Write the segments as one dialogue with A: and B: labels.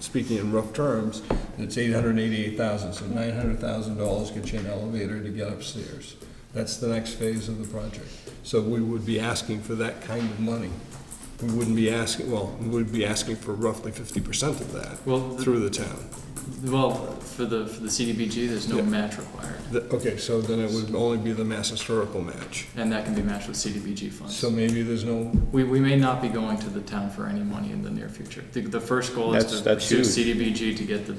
A: speaking in rough terms, it's eight hundred and eighty-eight thousand, so nine hundred thousand dollars gets you an elevator to get upstairs. That's the next phase of the project. So we would be asking for that kind of money. We wouldn't be asking, well, we would be asking for roughly fifty percent of that
B: Well, th-
A: through the town.
B: well, for the, for the CDBG, there's no
A: Yeah.
B: match required,
A: The- Okay, so then it would only be the Mass Historical match.
B: and that can be matched with CDBG funds.
A: So maybe there's no,
B: We, we may not be going to the town for any money in the near future. The, the first goal is
C: That's-
B: to
C: that's
B: pursue
C: huge.
B: CDBG to get the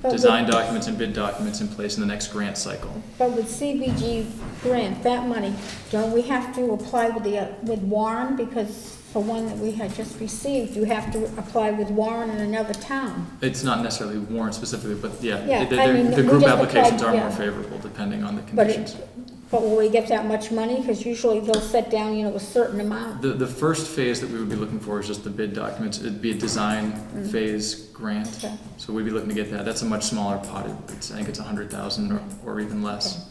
D: But
B: design documents and bid documents in place in the next grant cycle.
D: But with CBG grant, that money, don't we have to apply with the, uh, with Warren? Because for one that we had just received, you have to apply with Warren in another town.
B: It's not necessarily warrant specifically, but yeah,
D: Yeah,
B: the,
D: I mean,
B: the, the
D: we
B: group
D: just
B: applications are
D: applied,
B: more
D: yeah.
B: favorable depending on the
D: But
B: conditions.
D: it, but will we get that much money? Because usually they'll set down, you know, a certain amount.
B: The, the first phase that we would be looking for is just the bid documents. It'd be a design phase grant.
D: Okay.
B: So we'd be looking to get that. That's a much smaller pot. It's, I think it's a hundred thousand or, or even less.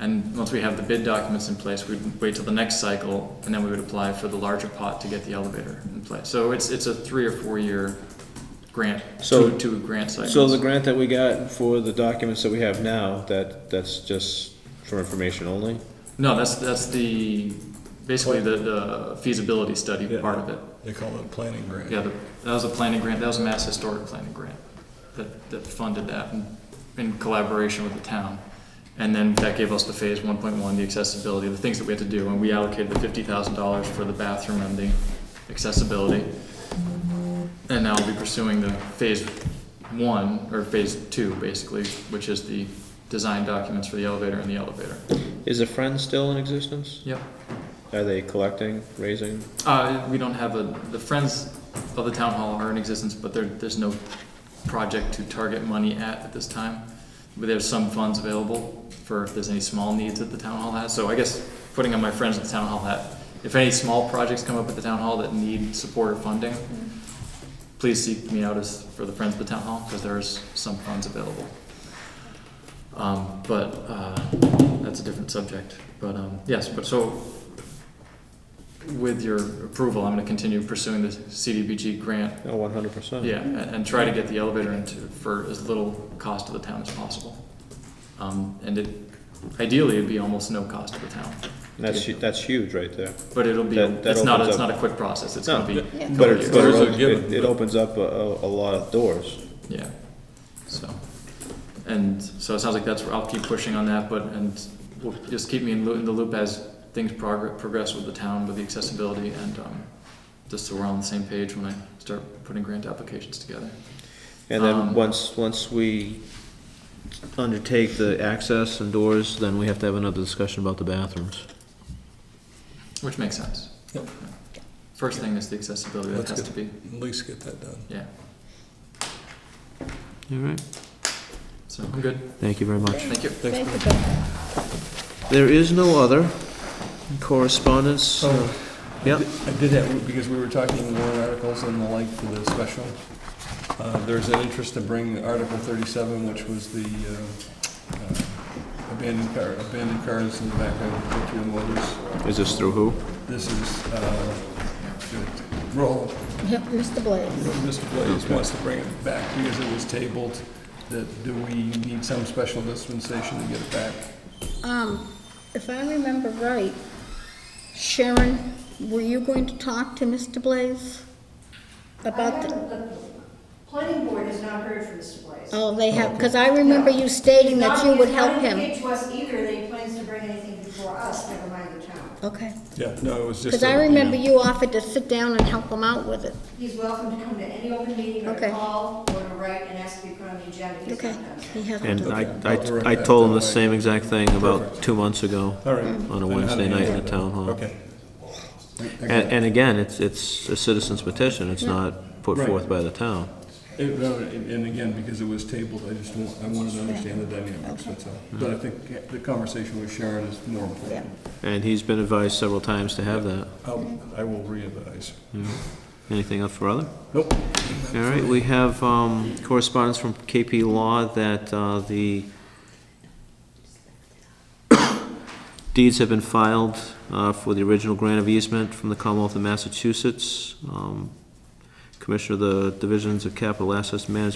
B: And once we have the bid documents in place, we'd wait till the next cycle and then we would apply for the larger pot to get the elevator in place. So it's, it's a three or four year grant,
C: So-
B: two, two grant cycles.
C: So the grant that we got for the documents that we have now, that, that's just for information only?
B: No, that's, that's the, basically the, the feasibility study
A: Yeah.
B: part of it.
A: they call it a planning grant.
B: Yeah, the- that was a planning grant, that was a Mass Historic Planning Grant that, that funded that in- in collaboration with the town. And then that gave us the phase one point one, the accessibility, the things that we had to do, and we allocated the fifty thousand dollars for the bathroom and the accessibility. And now we'll be pursuing the phase one, or phase two, basically, which is the design documents for the elevator and the elevator.
C: Is the Friends still in existence?
B: Yep.
C: Are they collecting, raising?
B: Uh, we don't have a, the Friends of the Town Hall are in existence, but there, there's no project to target money at at this time. But there's some funds available for if there's any small needs that the town hall has. So I guess putting on my Friends of the Town Hall hat, if any small projects come up at the town hall that need support or funding, please seek me out as, for the Friends of the Town Hall, because there's some funds available. Um, but, uh, that's a different subject. But, um, yes, but so with your approval, I'm gonna continue pursuing the CDBG grant,
C: No, Oh, one hundred percent.
B: yeah, and, and try to get the elevator into, for as little cost to the town as possible. Um, and it, ideally, it'd be almost no cost to the town,
C: That's, hu- that's huge right there.
B: but it'll be,
C: That- that
B: it's not,
C: opens
B: it's
C: up-
B: not a quick process, it's
C: No,
B: gonna be a
C: but-
D: Yeah.
B: couple
C: But it's,
B: years.
C: but
A: Those are
C: it- it,
A: given,
C: it
A: but-
C: opens up a, a a lot of doors.
B: Yeah, so, and so it sounds like that's, where I'll keep pushing on that, but, and we'll just keep me in loo- in the loop as things progress, progress with the town, with the accessibility, and, um, just so we're on the same page when I start putting grant applications together.
C: And
B: Um,
C: then once, once we undertake the access and doors, then we have to have another discussion about the bathrooms.
B: Which makes sense.
A: Yep.
B: First thing is the accessibility, that
A: That's
B: has
A: good.
B: to be,
A: At least get that done.
B: yeah,
C: All right,
B: so I'm good,
C: thank you very much.
B: thank you.
D: Thank you, Bill.
C: There is no other correspondence.
A: So,
C: Yep.
A: I did that because we were talking warrant articles and the like for the special. Uh, There's an interest to bring Article 37, which was the uh, uh, abandoned car, abandoned cars in the back of the two motors.
C: Is this through who?
A: This is, uh, roll,
D: Yep, Mr. Blaze.
A: Mr. Blaze wants to bring it back because it was tabled, that do we need some special dispensation to get it back?
D: Um, if I remember right, Sharon, were you going to talk to Mr. Blaze? About, the-
E: The planning board has not heard from Mr. Blaze.
D: oh, they have, because I remember you stating that you would help
E: Not
D: him.
E: indicate to us either that he plans to bring anything before us, never mind the town.
D: Okay,
A: Yeah, no, it was just.
D: because I
A: a-
D: remember you offered to sit down and help him out with it.
E: He's welcome to come to any open meeting or to
D: Okay.
E: call or to write and ask to be put on the agenda. He's
D: Okay,
E: not done that.
D: he hasn't
C: And
D: done
C: I,
D: that.
C: I, I told him the same exact thing about two months ago
A: All right.
C: on a
A: Then how
C: Wednesday
A: do you
C: night
A: do
C: in the
A: that?
C: town hall.
A: Okay.
C: And, and again, it's, it's a citizen's petition, it's not put
A: Right.
C: forth by the town.
A: It- no, And and again, because it was tabled, I just, want- I wanted to understand the dynamics, that's all. But I think the conversation with Sharon is more important.
C: And he's been advised several times to have that.
A: I'll- I will re-advise.
C: Anything else for other?
A: Nope.
C: All right, we have um, correspondence from KP Law that uh, the deeds have been filed uh, for the original grant of easement from the Commonwealth of Massachusetts. Um, Commissioner of the Divisions of Capital Assets Management